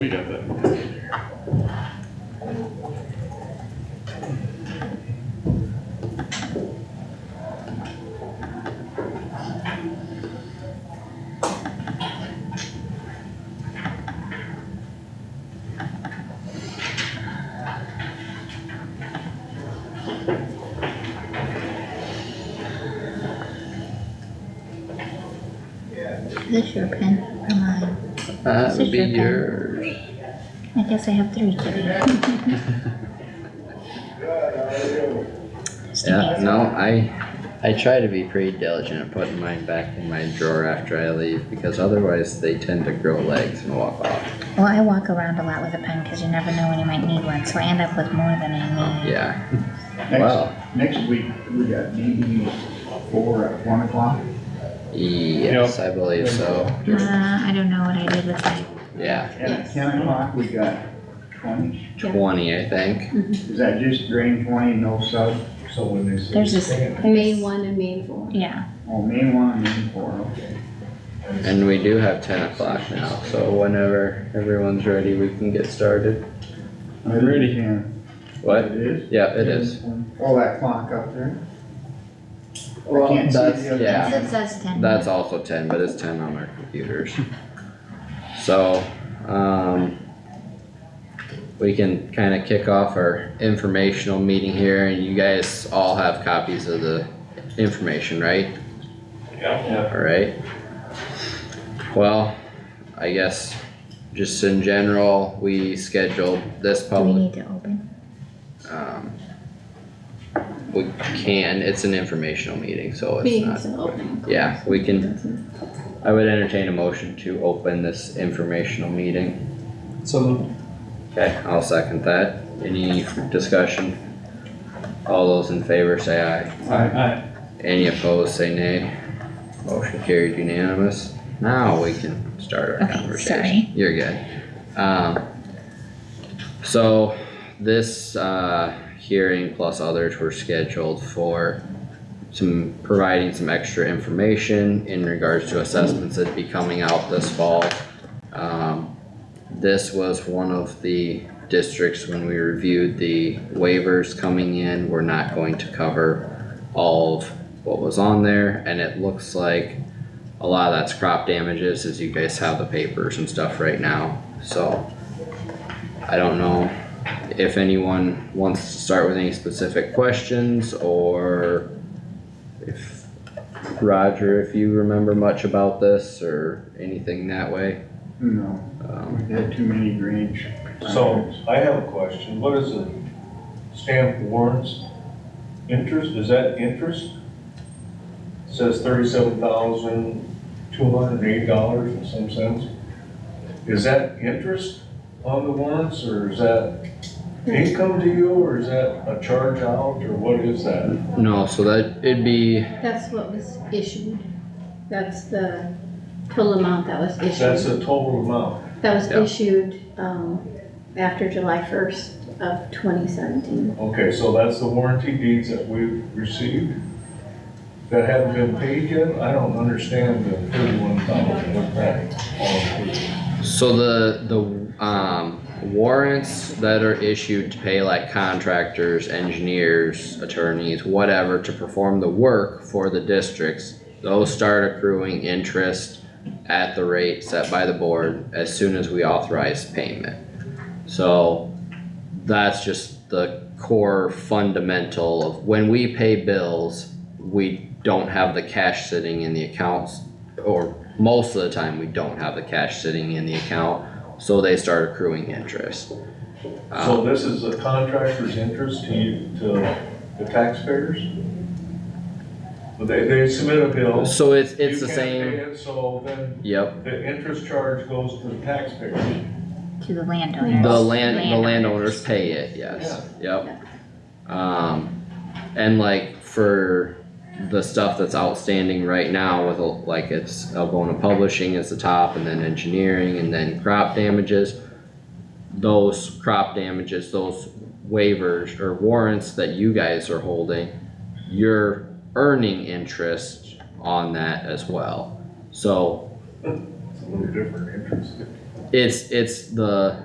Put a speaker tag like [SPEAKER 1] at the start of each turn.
[SPEAKER 1] We got that.
[SPEAKER 2] Is this your pen or mine?
[SPEAKER 3] That Uh, would
[SPEAKER 2] Sister
[SPEAKER 3] be
[SPEAKER 2] pen.
[SPEAKER 3] yours.
[SPEAKER 2] I guess I have three today. Just in
[SPEAKER 3] Yeah,
[SPEAKER 2] case.
[SPEAKER 3] no, I, I try to be pretty diligent at putting mine back in my drawer after I leave because otherwise they tend to grow legs and walk off.
[SPEAKER 2] Well, I walk around a lot with a pen because you never know when you might need one, so I end up with more than I need.
[SPEAKER 3] Yeah, Wow.
[SPEAKER 4] Next, next week, we got meeting four at one o'clock.
[SPEAKER 3] yes, I believe so,
[SPEAKER 2] Uh, I don't know what I did with that.
[SPEAKER 3] yeah.
[SPEAKER 4] And at
[SPEAKER 2] Yes.
[SPEAKER 4] ten o'clock, we got twenty.
[SPEAKER 3] Twenty, I think.
[SPEAKER 4] Is that just drain twenty, no sub?
[SPEAKER 5] So when they say.
[SPEAKER 2] There's this-
[SPEAKER 5] stand,
[SPEAKER 6] Main one and main four.
[SPEAKER 2] Yeah,
[SPEAKER 4] Oh, main one, main four, okay.
[SPEAKER 3] And we do have ten o'clock now, so whenever everyone's ready, we can get started.
[SPEAKER 4] I'm
[SPEAKER 1] ready.
[SPEAKER 3] What?
[SPEAKER 4] It is?
[SPEAKER 3] Yeah, it is.
[SPEAKER 4] Oh, that clock up there? I
[SPEAKER 3] Well,
[SPEAKER 4] can't see
[SPEAKER 3] that's,
[SPEAKER 4] the other
[SPEAKER 3] yeah.
[SPEAKER 2] it says ten.
[SPEAKER 3] That's also ten, but it's ten on our computers. So, um. We can kinda kick off our informational meeting here and you guys all have copies of the information, right?
[SPEAKER 1] Yeah.
[SPEAKER 3] Alright. Well, I guess just in general, we scheduled this
[SPEAKER 2] Do we
[SPEAKER 3] public,
[SPEAKER 2] need to open?
[SPEAKER 3] um. We can, it's an informational meeting, so it's
[SPEAKER 6] Being
[SPEAKER 3] not,
[SPEAKER 6] so open.
[SPEAKER 3] yeah, we can
[SPEAKER 6] Doesn't-
[SPEAKER 3] I would entertain a motion to open this informational meeting.
[SPEAKER 5] So
[SPEAKER 3] Okay, I'll second that. Any discussion? All those in favor say aye.
[SPEAKER 5] I,
[SPEAKER 3] Any opposed, say nay. Motion carried unanimous. Now we can start our
[SPEAKER 2] Okay,
[SPEAKER 3] conversation.
[SPEAKER 2] sorry.
[SPEAKER 3] You're good. Um, so this, uh, hearing plus others were scheduled for some, providing some extra information in regards to assessments that'd be coming out this fall. Um, this was one of the districts when we reviewed the waivers coming in, we're not going to cover all of what was on there, and it looks like a lot of that's crop damages, as you guys have the papers and stuff right now, so. I don't know if anyone wants to start with any specific questions, or if, Roger, if you remember much about this, or anything that way.
[SPEAKER 4] No,
[SPEAKER 3] Um,
[SPEAKER 4] we had too many drains.
[SPEAKER 5] so I have a question. What is it? Stamp warrants? Interest, is that interest? Says thirty-seven thousand, two hundred and eight dollars and some cents. Is that interest on the warrants or is that income to you or is that a charge out or what is that?
[SPEAKER 3] No, so that, it'd be,
[SPEAKER 6] That's what was issued. That's the total amount that was
[SPEAKER 5] That's
[SPEAKER 6] issued.
[SPEAKER 5] the total amount.
[SPEAKER 6] That was
[SPEAKER 3] Yeah.
[SPEAKER 6] issued, um, after July first of twenty seventeen.
[SPEAKER 5] Okay, so that's the warranty deeds that we've received that haven't been paid yet? I don't understand the thirty-one thousand, what that all includes.
[SPEAKER 3] so the, the, um, warrants that are issued to pay like contractors, engineers, attorneys, whatever, to perform the work for the districts, those start accruing interest at the rate set by the board as soon as we authorize payment. So that's just the core fundamental of when we pay bills, we don't have the cash sitting in the accounts or most of the time we don't have the cash sitting in the account, so they start accruing interest.
[SPEAKER 5] So
[SPEAKER 3] Um,
[SPEAKER 5] this is the contractor's interest to you, to the taxpayers? But They, they submit a bill.
[SPEAKER 3] Um, so it's, it's
[SPEAKER 5] you
[SPEAKER 3] the
[SPEAKER 5] can't pay
[SPEAKER 3] same,
[SPEAKER 5] it, So then
[SPEAKER 3] yep,
[SPEAKER 5] the interest charge goes to the taxpayer.
[SPEAKER 2] To the landowners.
[SPEAKER 3] the land, the landowners pay it, yes,
[SPEAKER 6] Yeah.
[SPEAKER 3] yep. Um, and like for the stuff that's outstanding right now with like it's Elgona Publishing is the top and then engineering and then crop damages. Those crop damages, those waivers or warrants that you guys are holding, you're earning interest on that as well. So
[SPEAKER 5] It's a little different interest.
[SPEAKER 3] It's, it's the